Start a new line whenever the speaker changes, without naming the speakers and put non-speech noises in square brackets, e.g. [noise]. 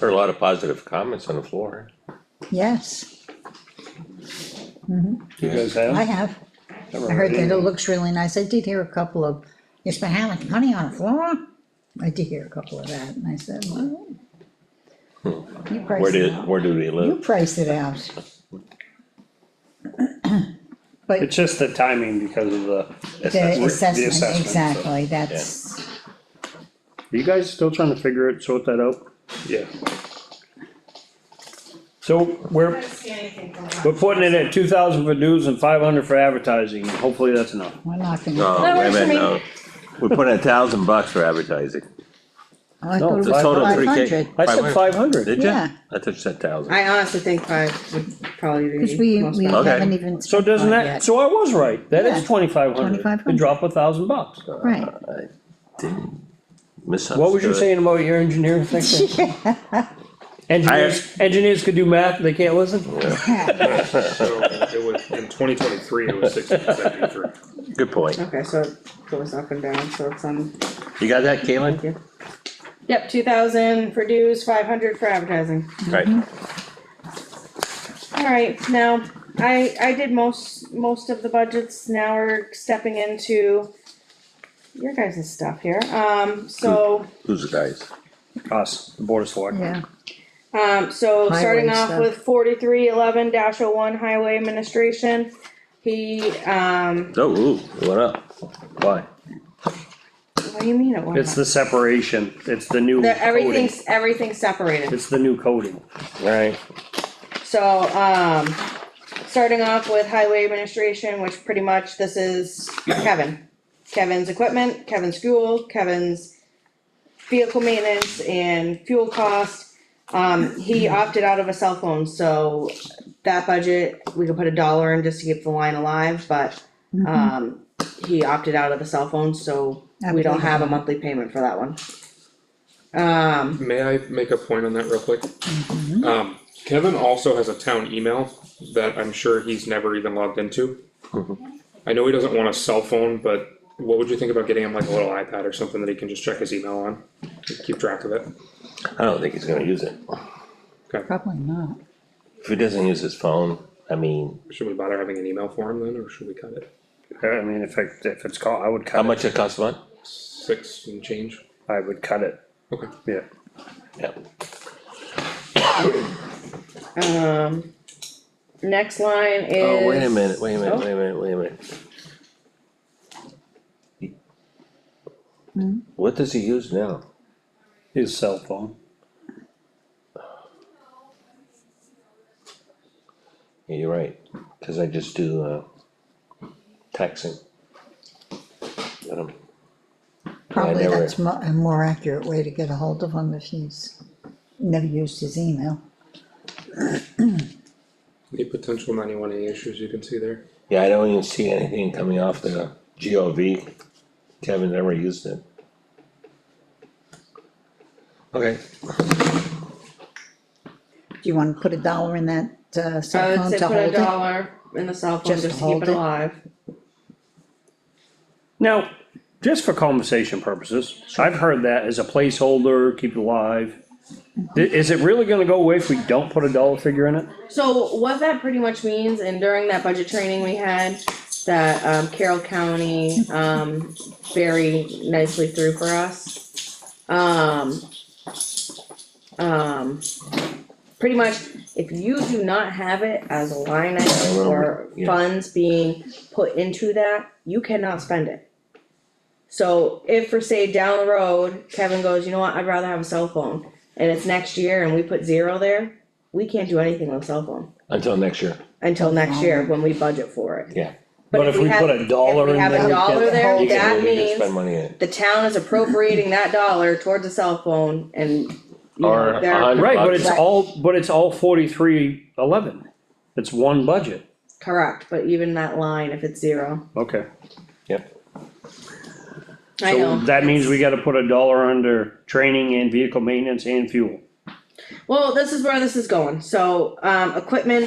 Heard a lot of positive comments on the floor.
Yes,
You guys
I
have?
have. I heard that it looks really nice. I did hear a couple of, you spent how much money on a floor? I did hear a couple of that, and I said, well. You
Where
price it
did,
out.
where do they
You
live?
price it out. But
It's just the timing because of the.
the assessment,
the assessment, so.
exactly, that's,
Are you guys still trying to figure it, sort that out? Yeah. So we're,
don't see anything from that.
we're putting it at two thousand for dues and five hundred for advertising, hopefully that's enough.
we're not gonna.
No, wait a
wait a
minute, no.
minute.
We're putting a thousand bucks for advertising.
I
No,
thought it
the
was
total
of three K.
500.
I said
500.
five hundred,
Did you?
Yeah.
I thought you said thousand.
I honestly think five would probably be.
Cause we,
most
we
valuable.
Okay.
haven't even.
so doesn't that, so I was right, that is
Yeah.
twenty-five hundred, the
2,500.
drop a thousand bucks.
Right,
Misunderstood.
What was you saying about your engineering
[laughs]
thing? Engineers, engineers could do math, they can't listen?
yeah,
So it was, in twenty twenty-three, it was sixteen seventy-three.
Good point.
Okay, so it goes up and down, so it's um, on,
You got that,
thank
Caitlin?
you. Yep, two thousand for dues, five hundred for advertising.
Right.
Alright, now, I, I did most, most of the budgets, now we're stepping into your guys' stuff here, um, so,
Who's the guys?
Us, the board of selectmen.
[laughs] yeah,
um, so starting
Highway
off
stuff.
with forty-three eleven dash oh one highway administration. He, um,
Oh, ooh, it went up. Why?
what do you mean it went
It's
up?
the separation, it's the new
The-
coating,
everything's, everything's separated.
it's the new coating.
Right.
So, um, starting off with highway administration, which pretty much this is Kevin. Kevin's equipment, Kevin's fuel, Kevin's vehicle maintenance and fuel cost. Um, he opted out of a cell phone, so that budget, we could put a dollar in just to keep the line alive, but, um, he opted out of the cell phone, so we don't have a monthly payment for that one. Um,
May I make a point on that real quick? Um, Kevin also has a town email that I'm sure he's never even logged into. I know he doesn't want a cell phone, but what would you think about getting him like a little iPad or something that he can just check his email on? Keep track of it.
I don't think he's gonna use it.
probably not.
If he doesn't use his phone, I mean,
Should we bother having an email for him then, or should we cut it?
I mean, if it, if it's caught, I would
how
cut it,
much it costs a month?
Six and change?
I would cut it,
Okay.
yeah.
Yeah.
um, next line is.
Oh, wait a minute, wait a minute,
Oh.
wait a minute, wait a minute.
Hmm?
What does he use now?
His cell phone,
Yeah, you're right, cause I just do, uh, texting. Let him-
Probably
never-
that's mo- a more accurate way to get a hold of him if he's never used his email.
Any potential ninety-one A issues you can see there?
Yeah, I don't even see anything coming off the G O V. Kevin never used it. Okay,
Do you wanna put a dollar in that, uh,
I
cell
would
phone
say
to
put a
hold it?
dollar in the cell phone
Just
just to
hold
keep it
it?
alive.
now, just for conversation purposes, I've heard that as a placeholder, keep it alive. I- Is it really gonna go away if we don't put a dollar figure in it?
So what that pretty much means, and during that budget training we had, that um, Carroll County, um, very nicely through for us. Um. Um. Pretty much, if you do not have it as a line item or
Yeah.
funds being put into that, you cannot spend it. So if for say down the road, Kevin goes, you know what, I'd rather have a cell phone, and it's next year and we put zero there, we can't do anything with a cell phone
until next year,
until next year when we budget for it.
yeah.
But if we
have-
put a dollar
If we
in
have
there,
a
we
dollar
get-
there,
You can-
that
you can Spend
means
money in it.
the town is appropriating that dollar towards a cell phone and, you know,
Or a
they're
hundred
Right, but
bucks.
it's all, but it's all forty-three eleven, it's one budget.
correct, but even that line, if it's zero,
Okay.
Yep,
I
So
know.
that means we gotta put a dollar under training and vehicle maintenance and fuel.
Well, this is where this is going, so, um, equipment